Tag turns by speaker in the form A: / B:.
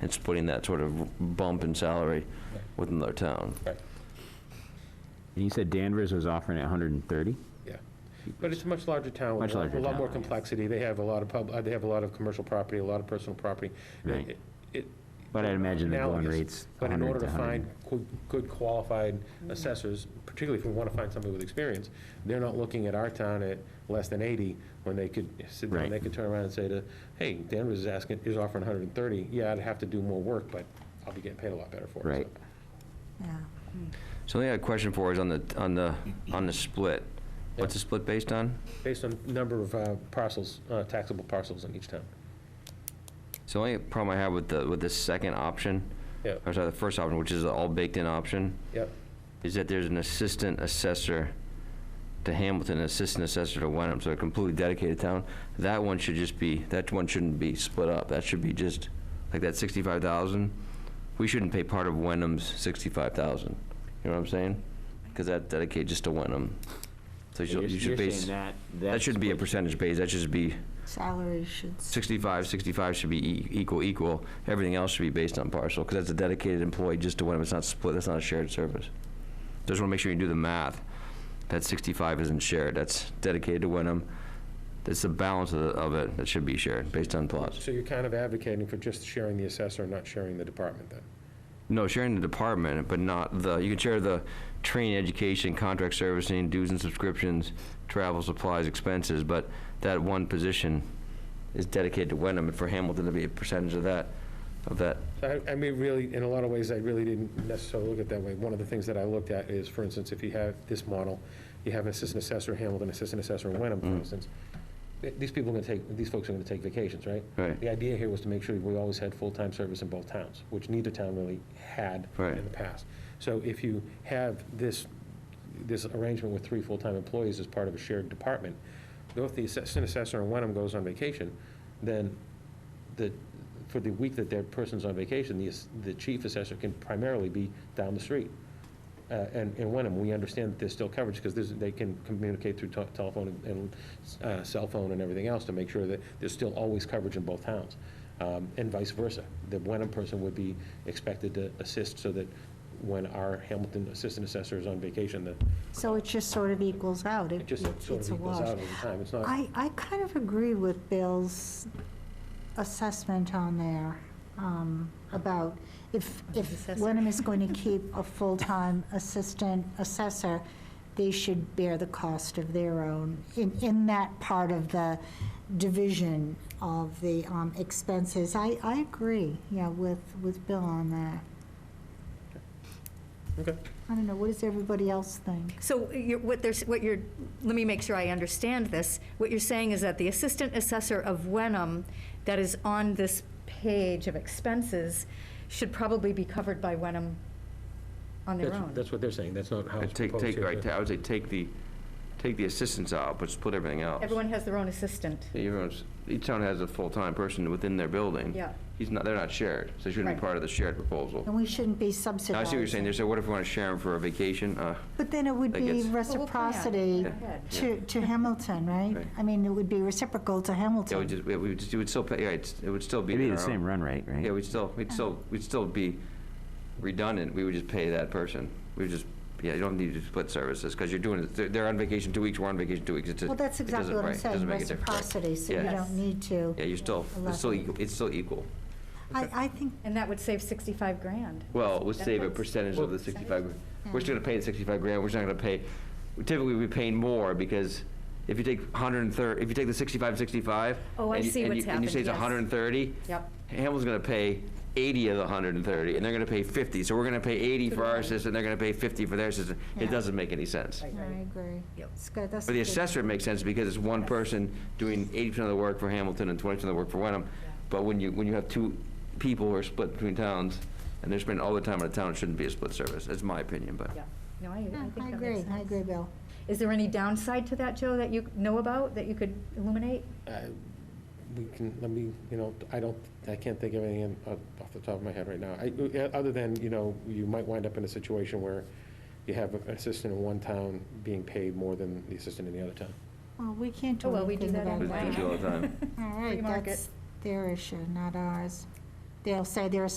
A: and splitting that sort of bump in salary with another town.
B: Right,
C: And you said Danvers was offering at 130?
B: yeah. But it's a much larger town. with
C: Much larger
B: A lot
C: town,
B: more
C: yes.
B: complexity. They have a lot of pub, uh, they have a lot of commercial property, a lot of personal property.
C: Right.
B: It- it-
C: But I'd imagine the going
B: analogous,
C: rate's
B: But in
C: 100
B: order
C: to
B: to
C: 100.
B: find good- good qualified assessors, particularly if we want to find somebody with experience, they're not looking at our town at less than 80, when they could sit down,
C: Right.
B: they could turn around and say to, hey, Danvers is asking, is offering 130, yeah, I'd have to do more work, but I'll be getting paid a lot better for it. so.
C: Right.
D: Yeah.
A: So I think I had a question for is on the, on the, on the split. What's the split based on?
B: Based on number of uh, parcels, uh, taxable parcels in each town.
A: So the only problem I have with the, with the second option,
B: Yeah,
A: or sorry, the first option, which is the all baked in option,
B: yeah,
A: is that there's an assistant assessor to Hamilton, an assistant assessor to Wenham, so a completely dedicated town. That one should just be, that one shouldn't be split up. That should be just, like that sixty-five thousand, we shouldn't pay part of Wenham's sixty-five thousand. You know what I'm saying? Because that dedicated just to Wenham. So you should, you should base, that shouldn't be a percentage base, that should just be
D: Salary should. s-
A: 65, 65 should be e- equal, equal. Everything else should be based on parcel, because that's a dedicated employee just to one of them. It's not split, that's not a shared service. Just want to make sure you do the math. That 65 isn't shared, that's dedicated to Wyndham. It's the balance of, the- of it that should be shared, based on plots.
B: so you're kind of advocating for just sharing the assessor and not sharing the department then?
A: No, sharing the department, but not the, you can share the training, education, contract servicing, dues and subscriptions, travel, supplies, expenses, but that one position is dedicated to Wyndham, and for Hamilton to be a percentage of that, of that
B: So I I mean, really, in a lot of ways, I really didn't necessarily look at it that way. One of the things that I looked at is, for instance, if you have this model, you have an assistant assessor in Hamilton, assistant assessor in Wenham, for instance, th- these people are going to take, these folks are going to take vacations, right?
A: Right.
B: The idea here was to make sure we always had full-time service in both towns, which neither town really had
A: Right.
B: in the past. So if you have this, this arrangement with three full-time employees as part of a shared department, though if the assistant assessor in Wenham goes on vacation, then the, for the week that that person's on vacation, the, ass- the chief assessor can primarily be down the street. Uh, And, and Wenham, we understand that there's still coverage, because there's, they can communicate through te- telephone and uh, cell phone and everything else to make sure that there's still always coverage in both towns, Um, and vice versa. The Wenham person would be expected to assist so that when our Hamilton assistant assessor is on vacation, that
D: So it just sort of equals out.
B: it just
D: it's-
B: sort
D: it's
B: of
D: a
B: equals
D: wash.
B: out over time. It's not.
D: I, I kind of agree with Bill's assessment on there um, about if, if Wenham is going to keep a full-time assistant assessor, they should bear the cost of their own in, in that part of the division of the um, expenses. I, I agree, yeah, with, with Bill on that.
B: Okay.
D: I don't know, what does everybody else think?
E: So you're, what there's, what you're, let me make sure I understand this. What you're saying is that the assistant assessor of Wenham that is on this page of expenses should probably be covered by Wenham on their
B: That's-
E: own.
B: That's what they're saying. That's not how
A: Uh,
B: it's
A: Take,
B: proposed
A: take,
B: here.
A: right, ta- I would say take the, take the assistants out, but split everything else.
E: Everyone has their own assistant.
A: Everyone's, each town has a full-time person within their building.
E: Yeah.
A: He's not, they're not shared, so they shouldn't be
E: Right.
A: part of the shared proposal.
D: And we shouldn't be
A: Now,
D: subsidizing.
A: I see what you're saying, they said, what if we want to share them for a vacation? Uh,
D: But then it would
A: That
D: be
A: gets- Well,
E: we'll plan.
D: reciprocity
E: Yeah. Ahead.
D: to, to Hamilton, right?
A: Right.
D: I mean, it would be reciprocal to
A: yeah, we
D: Hamilton.
A: just, we we would just, it would still, pay- yeah, it's- it would still be.
C: It'd be
A: in
C: the
A: our own-
C: same run rate, right?
A: Yeah, we'd still, we'd still,
D: Uh-huh.
A: we'd still be redundant, we would just pay that person. We would just, yeah, you don't need to split services, because you're doing, it- they're, they're on vacation two weeks, we're on vacation two weeks, it's, it
D: Well,
A: doesn't,
D: that's exactly what
A: right, it
D: I'm
A: doesn't
D: saying,
A: make a difference. right?
D: reciprocity, so you
A: Yeah.
D: don't need to.
A: Yeah, you're still, it's still, equal- it's still equal.
D: I, I think,
E: And that would save 65 grand.
A: Well, we'll save a
E: That's-
A: percentage of the
B: Well-
A: 65, grand.
E: Hmm.
A: we're still gonna pay the 65 grand, we're just not gonna pay, typically we're paying more, because if you take 130, if you take the 65 and 65.
E: Oh, I
A: and you-
E: see
A: and
E: what's
A: you- And you say it's
E: happened, yes.
A: 130.
E: Yep.
A: Hamilton's gonna pay 80 of the 130, and they're gonna pay 50, so we're gonna pay 80 for our assistant, they're gonna pay 50 for their assistant. It
D: Yeah.
A: doesn't make any sense.
D: I agree.
E: Yep.
D: It's good, that's.
A: For the
D: a good-
A: assessor, it makes sense because it's one person doing 80% of the work for Hamilton and 20% of the work for Wenham. But when you, when you have two people who are split between towns and they're spending all their time in a town, it shouldn't be a split service. That's my opinion, but.
E: Yeah. No, I, I
D: Yeah,
E: think that
D: Hmm, I
E: makes
D: agree, I
E: sense.
D: agree, Bill.
E: Is there any downside to that, Joe, that you know about, that you could illuminate?
B: I- We can, let me, you know, I don't, I can't think of anything off off the top of my head right now. I- uh, Other than, you know, you might wind up in a situation where you have an assistant in one town being paid more than the assistant in the other town.
D: Well, we can't
E: Oh,
D: do
E: well, we do
D: anything
E: that
D: about
A: We do
E: in
D: that.
A: all the time.
D: All
E: Free
D: right,
E: market.
D: that's their issue, not ours. They'll say they're a